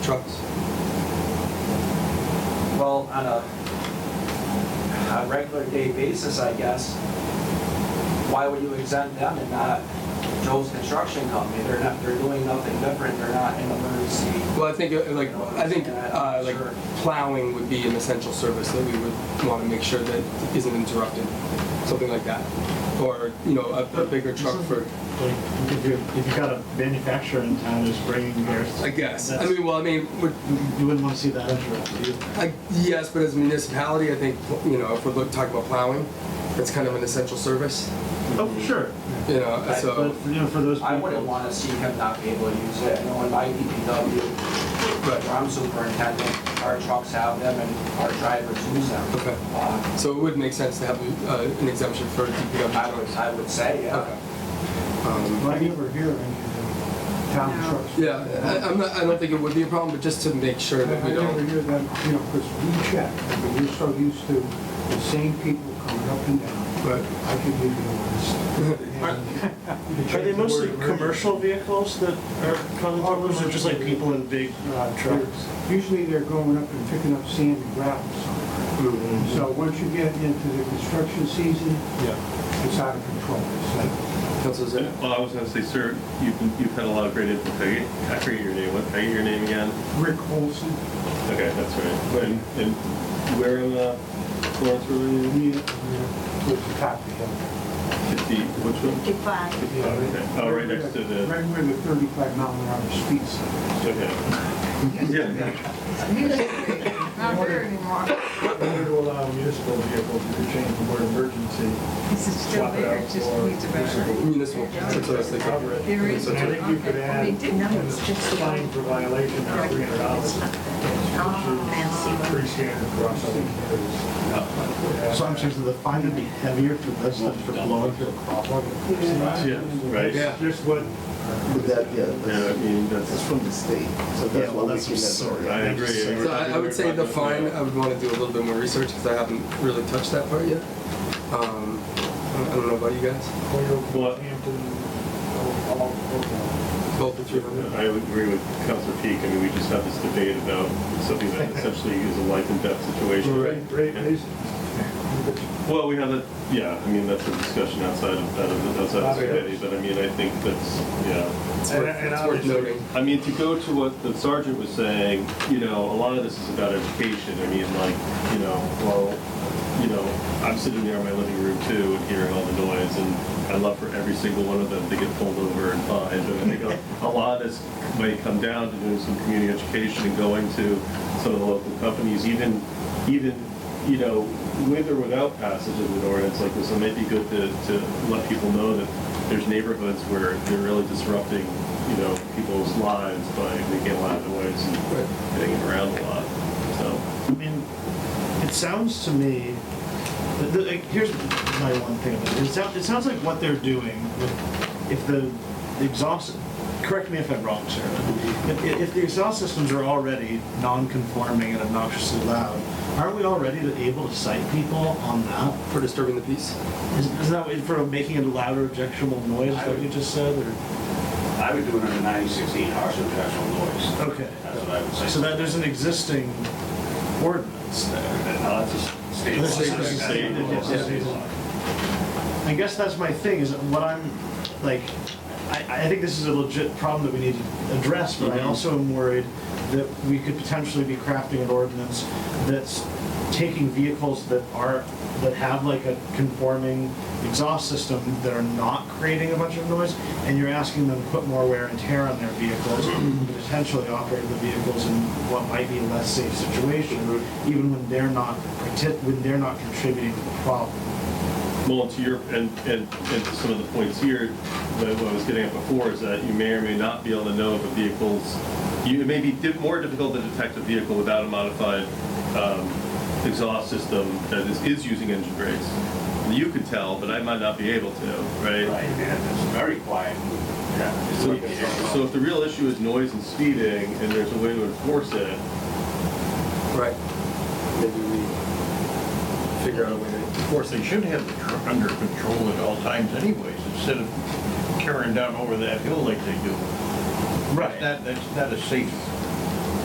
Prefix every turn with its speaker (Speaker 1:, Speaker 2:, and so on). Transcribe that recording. Speaker 1: trucks. Well, on a, a regular day basis, I guess, why would you exempt them and not Joe's Construction Company? They're not, they're doing nothing different, they're not in emergency.
Speaker 2: Well, I think, uh, like, I think, uh, like plowing would be an essential service that we would want to make sure that isn't interrupted, something like that. Or, you know, a, a bigger truck for,
Speaker 3: Like, if you, if you got a manufacturer in town who's bringing theirs.
Speaker 2: I guess. I
Speaker 3: that's-
Speaker 2: mean, well, I mean, we're,
Speaker 3: You wouldn't wanna see that interrupted either.
Speaker 2: I, yes, but as a municipality, I think, you know, if we're look- talking about plowing, that's kind of an essential service,
Speaker 3: Oh, sure.
Speaker 2: you know,
Speaker 3: But,
Speaker 2: so,
Speaker 3: you know, for those people.
Speaker 1: I wouldn't wanna see him not be able to use it, you know, in my DPW, where
Speaker 2: right.
Speaker 1: I'm superintendent, our trucks have them and our drivers use them.
Speaker 2: Okay.
Speaker 1: Uh,
Speaker 2: So it would make sense to have uh, an exemption for DPW
Speaker 1: I would,
Speaker 2: trucks.
Speaker 1: I would say,
Speaker 2: Okay.
Speaker 1: yeah.
Speaker 2: Um,
Speaker 3: Well, I never hear of any of the town
Speaker 4: No.
Speaker 3: trucks.
Speaker 2: Yeah, I, I'm not, I don't think it would be a problem, but just to make sure
Speaker 5: I
Speaker 2: that we
Speaker 5: I never
Speaker 2: don't.
Speaker 5: hear that, you know, because we check, I mean, you're so used to the same people coming up and down.
Speaker 2: But
Speaker 5: I can give you the list.
Speaker 6: Are they mostly commercial vehicles that are causing problems, or just like people in big uh, trucks?
Speaker 5: Usually they're going up and picking up sand and gravel somewhere.
Speaker 2: Mm-hmm.
Speaker 5: So once you get into the construction season,
Speaker 6: Yeah.
Speaker 5: it's out of control. It's like,
Speaker 2: Councilor Zinn?
Speaker 7: Well, I was gonna say, sir, you've, been- you've had a lot of great input. Can I get- I forget your name. What, can I get your name again?
Speaker 5: Rick Olson,
Speaker 7: Okay, that's right. And, and where in uh, Florence were
Speaker 5: he,
Speaker 7: you?
Speaker 5: he was the top of him.
Speaker 7: Fifty, which one?
Speaker 4: Fifty-five.
Speaker 7: Oh, okay. Oh, right next to the,
Speaker 5: Right where the thirty-five mile an hour speed sign.
Speaker 7: okay. Yeah,
Speaker 4: Not there anymore.
Speaker 3: Order to allow municipal vehicles, you could change the word emergency.
Speaker 4: This is still there, it just needs a better.
Speaker 2: Municipal, that's what I was thinking.
Speaker 4: There is.
Speaker 3: And I think you could add,
Speaker 4: They did, no, it's
Speaker 3: a
Speaker 4: just.
Speaker 3: fine for violation of three hundred dollars. Pretty standard across, I think, So I'm saying the fine would be heavier for this than for blowing through a crosswalk.
Speaker 7: yeah, right?
Speaker 2: Yeah.
Speaker 3: Just what,
Speaker 8: But that, yeah,
Speaker 7: Yeah, I
Speaker 8: that's,
Speaker 7: mean,
Speaker 8: that's
Speaker 7: that's,
Speaker 8: from the state, so
Speaker 3: yeah,
Speaker 8: that's
Speaker 3: well,
Speaker 8: why we
Speaker 3: that's
Speaker 8: can
Speaker 3: absurd.
Speaker 8: that.
Speaker 7: I agree.
Speaker 2: So I, I would say the fine, uh, I would wanna do a little bit more research, because I haven't really touched that part yet. Um, I don't- I don't know about you guys,
Speaker 7: Well,
Speaker 2: both the three of you.
Speaker 7: I would agree with Councilor Peak. I mean, we just had this debate about something that essentially is a life and death situation.
Speaker 2: Right.
Speaker 3: Great, reason.
Speaker 7: Well, we have a, yeah, I mean, that's a discussion outside of, out of the- outside of the committee, but I mean, I think that's, yeah.
Speaker 2: It's
Speaker 3: And-
Speaker 2: worth, it's
Speaker 3: and
Speaker 2: worth
Speaker 3: obviously-
Speaker 2: noting.
Speaker 7: I mean, to go to what the sergeant was saying, you know, a lot of this is about education. I mean, like, you know, well, you know, I'm sitting there in my living room too and hearing all the noise, and I love for every single one of them to get pulled over and fined. And I think a- a lot of this might come down to doing some community education and going to some of the local companies, even, even you know, with or without passage of an ordinance like this, it might be good to, to let people know that there's neighborhoods where they're really disrupting, you know, people's lives by making a lot of noise
Speaker 2: Right.
Speaker 7: and getting around a lot, so.
Speaker 3: I mean, it sounds to me, the, the, like, here's my one thing about it. It, sound, it sounds like what they're doing, with- if the exhaust, correct me if I'm wrong, sir, if, if the exhaust systems are already non-conforming and obnoxiously loud, aren't we already able to cite people on that?
Speaker 2: For disturbing the peace?
Speaker 3: Is, is that what- for making a louder objectionable noise, what you just said, or?
Speaker 9: I would do it under 916, harsh objection noise.
Speaker 3: Okay.
Speaker 9: That's what I would say.
Speaker 3: So that there's an existing ordinance there.
Speaker 9: Now, that's a state law.
Speaker 3: That's a
Speaker 7: state- state law.
Speaker 9: That's a state law.
Speaker 3: I guess that's my thing is what I'm like. I, I think this is a legit problem that we need to address, but I also am worried that we could potentially be crafting an ordinance that's taking vehicles that are that have like a conforming exhaust system that are not creating a bunch of noise, and you're asking them to put more wear and tear on their vehicles, and potentially operate the vehicles in what might be a less safe situation, even when they're not partic- when they're not contributing to the problem.
Speaker 7: Well, to your, and, and, and to some of the points here, that what I was getting at before is that you may or may not be able to know if a vehicle's, you, it may be di- more difficult to detect a vehicle without a modified, um, exhaust system that is, is using engine brakes. You could tell, but I might not be able to,
Speaker 9: Right, and it's very quiet. Yeah.
Speaker 7: So, so if the real issue is noise and speeding, and there's a way to enforce it,
Speaker 2: Right. Maybe we figure out a way to.
Speaker 10: Of course, they should have the truck under control at all times anyways, instead of carrying down over that hill like they do.
Speaker 3: Right.
Speaker 10: That, that's not a safe